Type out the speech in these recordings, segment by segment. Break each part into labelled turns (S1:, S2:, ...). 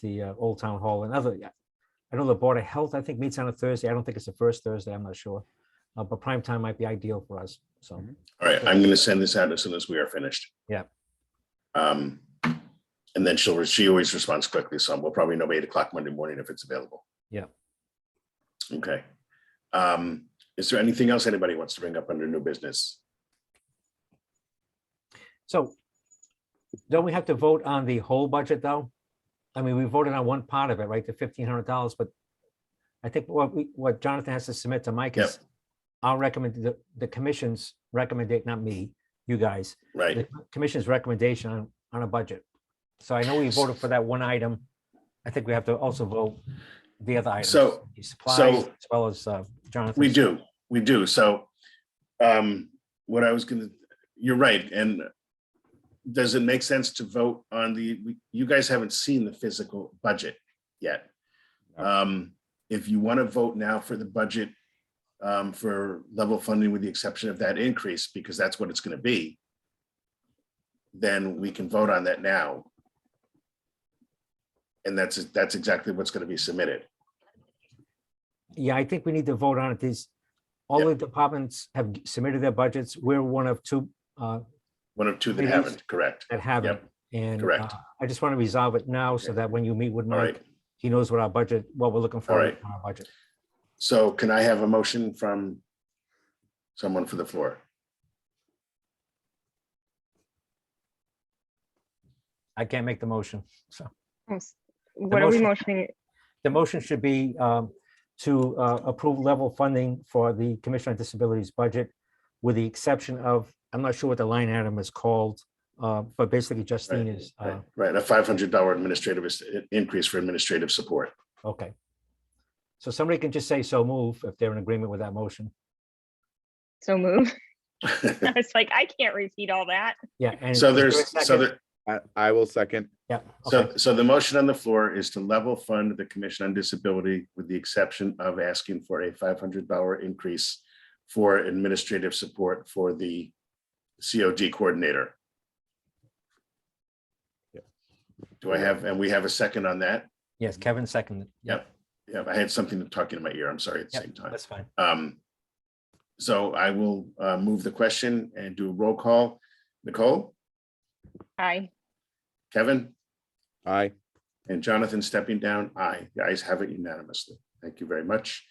S1: the uh, Old Town Hall and other, I know the Board of Health, I think meets on a Thursday. I don't think it's the first Thursday. I'm not sure. Uh, But prime time might be ideal for us. So,
S2: Mhm.
S3: All right, I'm gonna send this out as soon as we are finished.
S1: Yeah.
S3: Um, and then she'll, she always responds quickly, so we'll probably know by eight o'clock Monday morning if it's available.
S1: Yeah.
S3: Okay. Um, is there anything else anybody wants to bring up under new business?
S1: so don't we have to vote on the whole budget, though? I mean, we voted on one part of it, right? The fifteen hundred dollars, but I think what we, what Jonathan has to submit to Mike
S3: Yep.
S1: is I'll recommend, the, the commission's recommendation, not me, you guys,
S3: Right,
S1: the commission's recommendation on, on a budget. So I know we voted for that one item. I think we have to also vote the other items.
S3: So-
S1: the Supplies,
S3: so-
S1: as well as uh, Jonathan.
S3: we do, we do, so, um, what I was gonna, you're right, and does it make sense to vote on the, you guys haven't seen the physical budget yet. Um, if you want to vote now for the budget um, for level funding with the exception of that increase, because that's what it's going to be, then we can vote on that now. And that's, that's exactly what's going to be submitted.
S1: Yeah, I think we need to vote on it. These, all the departments have submitted their budgets. We're one of two uh,
S3: One of two that
S1: It is.
S3: haven't, correct?
S1: that haven't.
S3: Yep,
S1: And
S3: correct.
S1: uh, I just want to resolve it now so that when you meet with
S3: All right.
S1: Mike, he knows what our budget, what we're looking for
S3: All
S1: in
S3: right.
S1: our budget.
S3: So can I have a motion from someone for the floor?
S1: I can't make the motion, so.
S4: Yes. What are we
S1: motion-
S4: motioning?
S1: The motion should be um, to uh, approve level funding for the Commission on Disabilities budget with the exception of, I'm not sure what the line item is called, uh, but basically Justine is, uh,
S3: Right, Right, a five hundred dollar administrative is- increase for administrative support.
S1: okay. So somebody can just say so move if they're in agreement with that motion.
S4: So move. It's like, I can't repeat all that.
S1: Yeah. and
S3: So
S1: is there a
S3: there's, so
S1: second?
S3: there,
S2: I, I will second.
S1: Yeah. okay.
S3: So, so the motion on the floor is to level fund the Commission on Disability with the exception of asking for a five hundred dollar increase for administrative support for the COG coordinator.
S2: Yeah.
S3: Do I have, and we have a second on that?
S1: Yes, Kevin seconded. Yeah,
S3: Yep. Yeah, I had something talking in my ear. I'm sorry at the
S1: Yep,
S3: same time.
S1: That's fine.
S3: Um, so I will uh, move the question and do a roll call. Nicole,
S4: Aye.
S3: Kevin?
S2: Aye.
S3: And Jonathan stepping down, aye. The ayes have it unanimously. Thank you very much.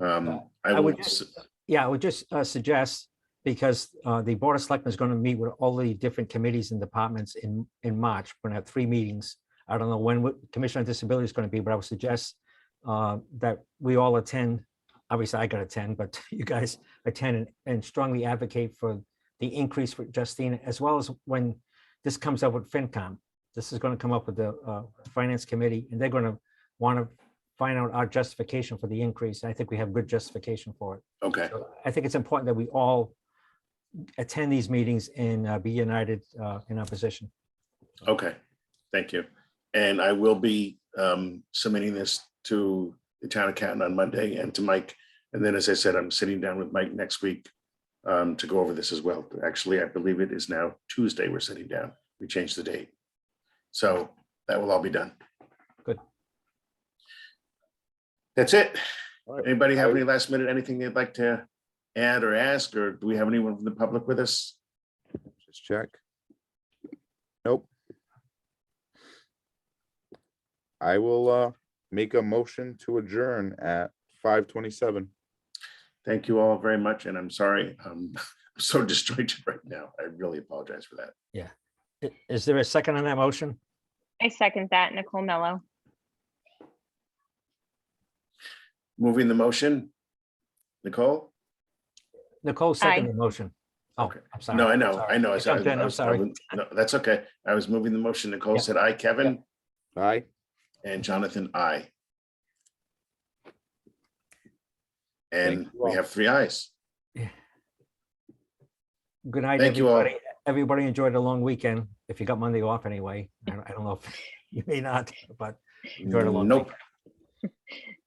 S3: Um, I
S1: I
S3: will,
S1: would
S3: s-
S1: just, yeah, I would just uh, suggest, because uh, the Board of Selectmen is going to meet with all the different committees and departments in, in March. We're going to have three meetings. I don't know when what Commission on Disability is going to be, but I would suggest uh, that we all attend. Obviously, I got to attend, but you guys attend and- and strongly advocate for the increase for Justine, as well as when this comes up with FinCom. This is going to come up with the uh, Finance Committee, and they're going to want to find out our justification for the increase. I think we have good justification for it.
S3: okay,
S1: So I think it's important that we all attend these meetings and uh, be united uh, in our position.
S3: okay. Thank you. And I will be um, submitting this to the town accountant on Monday and to Mike. And then, as I said, I'm sitting down with Mike next week um, to go over this as well. Actually, I believe it is now Tuesday we're sitting down. We changed the date. So that will all be done.
S1: Good.
S3: That's it.
S2: All right.
S3: Anybody have
S2: I-
S3: any last minute, anything they'd like to add or ask, or do we have anyone from the public with us?
S2: Just check. Nope. I will, uh, make a motion to adjourn at five twenty-seven.
S3: Thank you all very much, and I'm sorry, um, I'm so distracted right now. I really apologize for that.
S1: I- Is there a second on that motion?
S4: I second that, Nicole Mello.
S3: Moving the motion. Nicole?
S1: Nicole seconded the motion. Oh,
S3: Okay.
S1: I'm sorry.
S3: No, I know,
S1: Sorry.
S3: I know. I said-
S1: jumped in,
S3: I
S1: I'm
S3: was- I
S1: sorry.
S3: was- No, that's okay. I was moving the motion. Nicole
S1: Yeah.
S3: said aye, Kevin,
S2: Aye.
S3: and Jonathan, aye. And
S2: Thank you
S3: we
S2: all.
S3: have three ayes.
S1: Good night,
S3: Thank you all.
S1: everybody. Everybody enjoyed a long weekend, if you got Monday off anyway. I don't- I don't know if you may not, but Enjoy it a long
S3: Nope.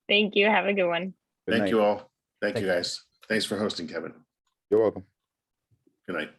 S4: Thank you. Have a good one.
S2: Good
S3: Thank
S2: night.
S3: you all. Thank you,
S1: Thank
S3: guys. Thanks for hosting, Kevin.
S2: You're welcome.
S3: Good night.